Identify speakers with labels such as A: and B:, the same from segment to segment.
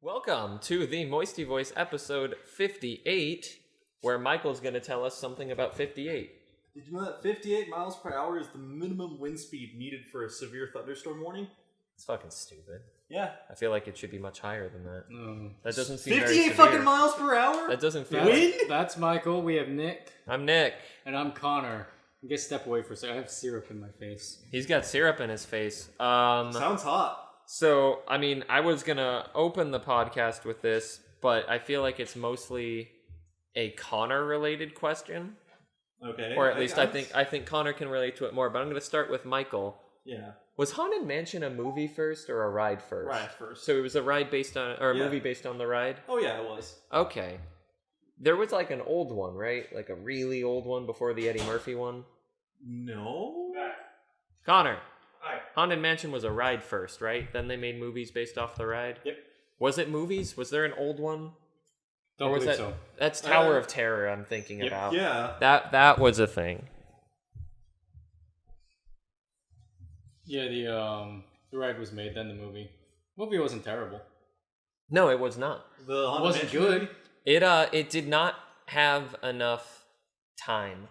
A: Welcome to the Moisty Voice episode 58, where Michael's going to tell us something about 58.
B: Did you know that 58 miles per hour is the minimum wind speed needed for a severe thunderstorm warning?
A: It's fucking stupid.
B: Yeah.
A: I feel like it should be much higher than that. That doesn't seem very
B: 58
A: severe.
B: fucking miles per hour?
A: That doesn't feel.
C: That's,
A: Like,
B: Wind?
C: that's Michael. We have Nick,
A: I'm Nick.
C: and I'm Connor. I guess step away for a second. I have syrup in my face.
A: He's got syrup in his face. Um,
B: Sounds hot.
A: so I mean, I was gonna open the podcast with this, but I feel like it's mostly a Connor-related question,
B: Okay.
A: or at least I think I think Connor can relate to it more. But I'm gonna start with Michael.
B: Yeah.
A: Was Haunted Mansion a movie first or a ride first?
B: Right first.
A: So it was a ride based on, or a
B: Yeah.
A: movie based on the ride.
B: oh, yeah, it was.
A: Okay. There was like an old one, right? Like a really old one before the Eddie Murphy one.
B: No?
A: Connor,
B: Hi.
A: Haunted Mansion was a ride first, right? Then they made movies based off the ride.
B: Yep.
A: Was it movies? Was there an old one?
C: Don't
A: Or was
C: believe
A: that
C: so.
A: that's Tower
B: Uh,
A: of Terror? I'm thinking
C: yep.
A: about.
B: Yeah.
A: That that was a thing.
C: Yeah, the um, the ride was made, then the movie. Movie wasn't terrible.
A: No, it was not.
B: The
C: It
B: Haunted
C: wasn't
B: Mansion
C: good.
B: movie?
A: It uh, it did not have enough time.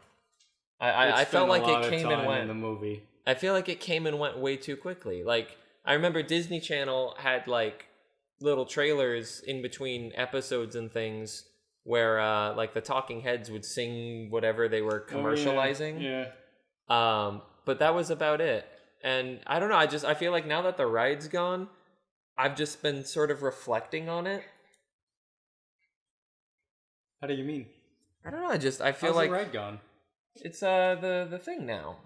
A: I I, I felt
C: It spent a
A: like
C: lot
A: it
C: of
A: came
C: time
A: and went.
C: in the movie.
A: I feel like it came and went way too quickly. Like I remember Disney Channel had like little trailers in between episodes and things where uh like the talking heads would sing whatever they were
C: Oh, yeah.
A: commercializing.
C: yeah.
A: Um but that was about it. And I don't know, I just I feel like now that the ride's gone, I've just been sort of reflecting on it.
C: How do you mean?
A: I don't know, I just I feel
C: How's
A: like
C: the ride gone?
A: it's uh the the thing now.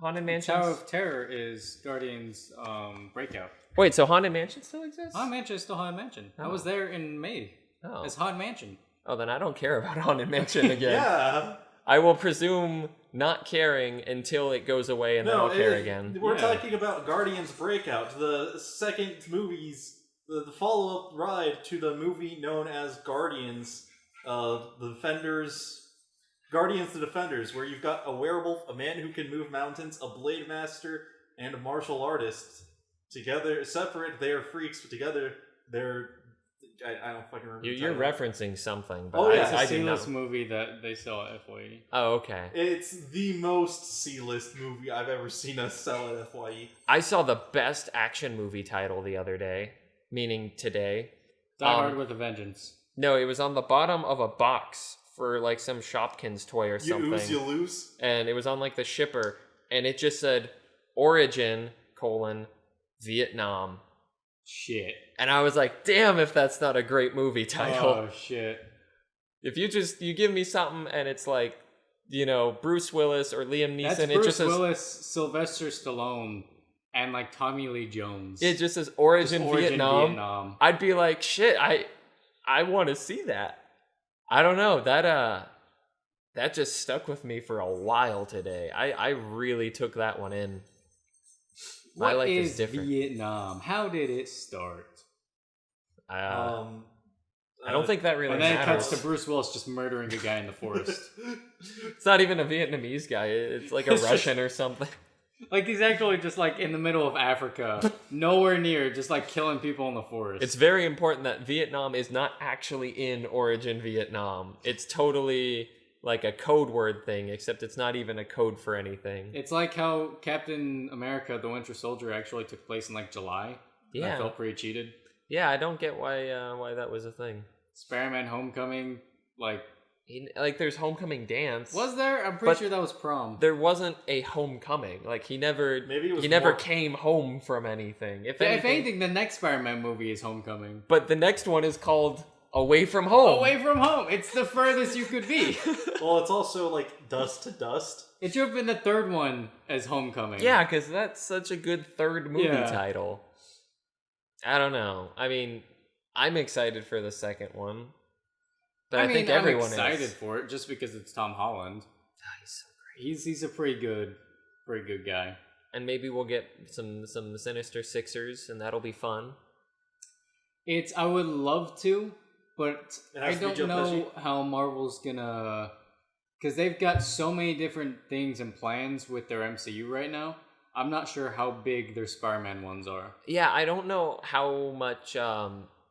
A: Haunted Mansion.
C: Tower of Terror is Guardians um, Breakout.
A: Wait, so Haunted Mansion still exists?
C: Haunted Mansion is still Haunted Mansion. I was there in May.
A: Oh.
C: It's Haunted Mansion.
A: oh, then I don't care about Haunted Mansion again.
B: Yeah.
A: I will presume not caring until it goes away and then I'll
B: it-
A: care
B: it-
A: again.
B: We're
C: Yeah.
B: talking about Guardians Breakout, the second movie's the, the follow-up ride to the movie known as Guardians, uh, the Defenders, Guardians the Defenders, where you've got a werewolf, a man who can move mountains, a blade master, and a martial artist. Together, separate, they are freaks, but together, they're. I, I don't fucking remember.
A: You,
B: the
A: you're
B: title.
A: referencing something, but
B: Oh,
A: I,
B: yeah.
C: it's a
A: I do
C: seamless
A: not.
C: movie that they sell at E. FYE.
A: Oh, okay.
B: It's the most C-list movie I've ever seen us sell at E. FYE.
A: I saw the best action movie title the other day, meaning today.
C: Die
A: Um,
C: Hard with a Vengeance.
A: No, it was on the bottom of a box for like some Shopkins toy or
B: You
A: something.
B: ooze, you lose.
A: and it was on like the shipper, and it just said Origin colon Vietnam.
C: Shit.
A: And I was like, damn, if that's not a great movie title.
C: Oh shit.
A: If you just you give me something and it's like, you know, Bruce Willis or Liam
C: That's
A: Neeson,
C: Bruce
A: it just says
C: Willis, Sylvester Stallone, and like Tommy Lee Jones.
A: it just says
C: Just
A: Origin, Vietnam.
C: Vietnam.
A: I'd be like, shit, I I want to see that. I don't know that uh that just stuck with me for a while today. I I really took that one in. My
C: What
A: life is
C: is
A: different.
C: Vietnam. How did it start?
A: Uh,
B: um,
A: I don't
B: uh,
A: think that really
C: Oh, And then it
A: matters.
C: cuts to Bruce Willis just murdering a guy in the forest.
A: it's not even a Vietnamese guy. It's like a
C: It's just-
A: Russian or something.
C: like he's actually just like in the middle of Africa, nowhere near, just like killing people in the forest.
A: It's very important that Vietnam is not actually in Origin Vietnam. It's totally like a code word thing, except it's not even a code for anything.
C: it's like how Captain America: The Winter Soldier actually took place in like July. And I
A: yeah,
C: felt pretty cheated.
A: yeah. I don't get why uh, why that was a thing.
C: Spider-Man: Homecoming, like
A: He, like, there's homecoming dance.
C: was there? I'm pretty
A: But
C: sure that was prom.
A: there wasn't a homecoming? Like he never
B: Maybe it was
A: he never
B: more-
A: came home from anything. If,
C: Yeah,
A: anything,
C: if anything, the next Spider-Man movie is Homecoming.
A: but the next one is called Away from Home.
C: Away from home, it's the furthest you could be.
B: Well, it's also like dust to dust.
C: It should have been the third one as Homecoming.
A: Yeah, because that's such a good third movie
C: Yeah.
A: title. I don't know. I mean, I'm excited for the second one, but I,
C: mean,
A: think everyone
C: I'm excited
A: is. Ah,
C: for it just because it's Tom Holland.
A: Nice.
C: He's he's a pretty good, pretty good guy.
A: And maybe we'll get some some Sinister Sixers, and that'll be fun.
C: It's I would love to, but
B: It
C: I
B: has to be
C: don't
B: Joe
C: know how Marvel's gonna because they've got so many different things and plans with their MCU right now. I'm not sure how big their Spider-Man ones are.
A: Yeah, I don't know how much um,